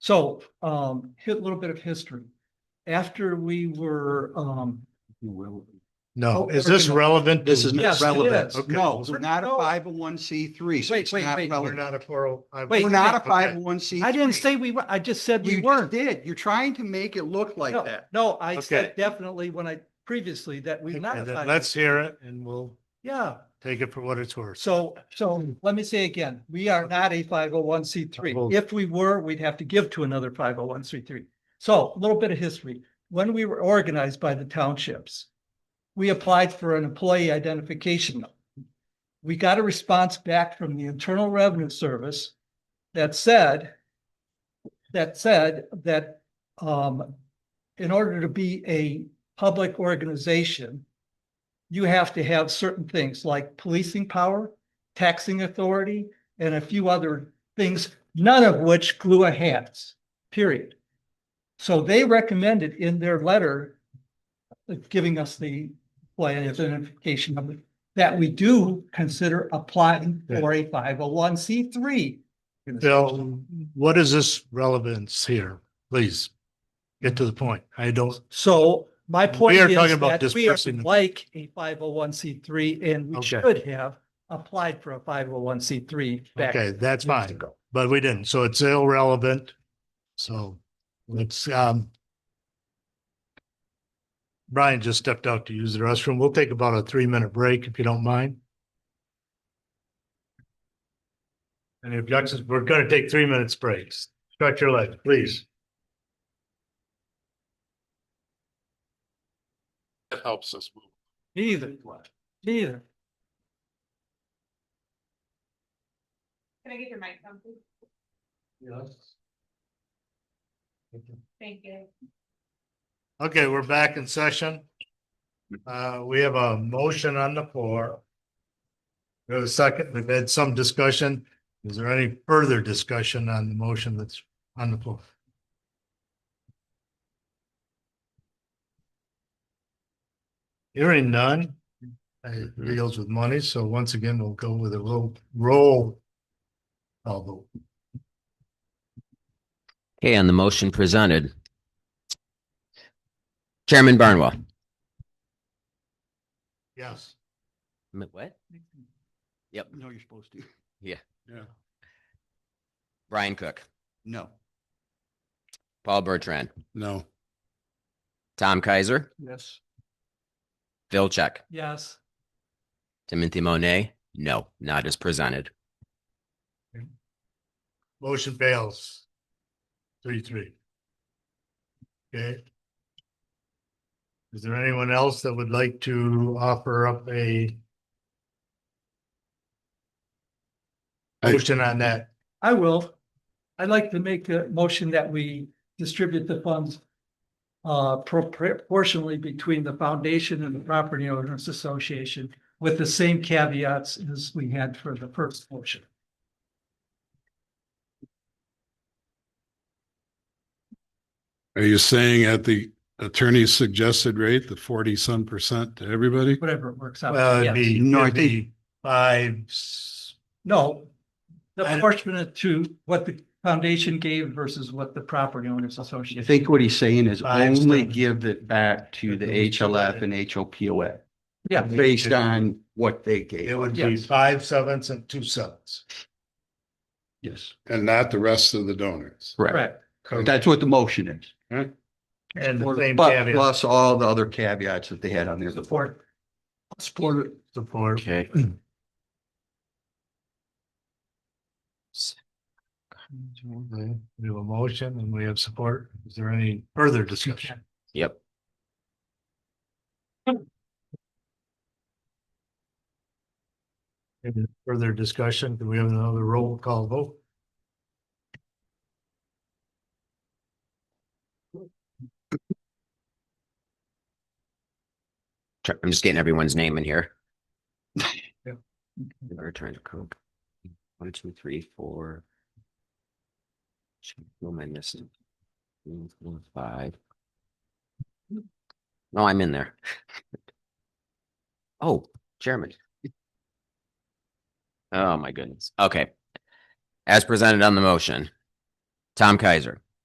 So, um, hit a little bit of history. After we were, um, No, Oh, is this original. relevant? This to- is yes, it relevant. is. Okay. No, we're not a No. five oh one C three. Wait, wait, wait, wait. We're not a four oh. I- Wait, We're not a okay. five oh one C. I didn't say we were, I just said we You weren't. just did. You're trying to make it look like No, that. No, I said Okay. definitely when I, previously that we've not. And then applied. Let's hear it and we'll Yeah, take it for what it's worth. so, so let me say again, we are not a five oh one C three. Hold. If we were, we'd have to give to another five oh one C three. So a little bit of history. When we were organized by the townships, we applied for an employee identification. number. We got a response back from the Internal Revenue Service that said that said that um in order to be a public organization, you have to have certain things like policing power, taxing authority, and a few other things, none of which GLUA has, period. So they recommended in their letter uh, giving us the plan identification number that we do consider applying for a five oh one C three. Bill, what is this relevance here? Please get to the point. I don't, So my point We are is talking about that we are dispersing the- like a five oh one C three and we Okay. should have applied for a five oh one C three back. okay, that's years fine, ago. but we didn't. So it's irrelevant. So let's, um, Brian just stepped out to use the restroom. We'll take about a three minute break if you don't mind. Any objections? We're going to take three minutes breaks. Stretch your legs, please. That helps us move. Neither, neither. Can I get your mic on, please? Thank you. Okay, we're back in session. Uh, we have a motion on the floor. We have a second, we've had some discussion. Is there any further discussion on the motion that's on the floor? Hearing none, it deals with money, so once again, we'll go with a little roll. call vote. Okay, on the motion presented. Chairman Barnwell. yes. What? Yep. No, you're supposed to. Yeah. Yeah. Brian Cook, No. Paul Bertrand, No. Tom Kaiser, Yes. Phil Check, Yes, Timothy Monet. No, not as presented. Motion fails. Three, three. Okay. Is there anyone else that would like to offer up a I- motion on that? I will. I'd like to make a motion that we distribute the funds uh propor- proportionally between the foundation and the property owners association with the same caveats as we had for the first motion. Are you saying at the attorney's suggested rate, the forty some percent to everybody? whatever it works out. Well, Uh, it'd Uh, Yes. be, No, I it'd be five, s- No. The I don't- proportionate to what the foundation gave versus what the property owners association. I think what he's saying is Five only cents. give it back to the HLF and HOPOA Yeah, based on what they gave. it would be Yes. five sevenths and two sevenths. Yes, And not the rest of the donors. correct. correct. That's what the motion is. And the same But caveat. plus all the other caveats that they had on there before. Support. Support it. Support. Okay. Okay, We have a motion and we have support. Is there any further discussion? Yep. Any Further discussion? Do we have another roll call vote? Try- I'm just getting everyone's name in here. Bertrand Cook. One, two, three, four. Who am I missing? Three, four, Five. No, I'm in there. Oh, chairman. Oh, my goodness. Okay. As presented on the motion, Tom Kaiser,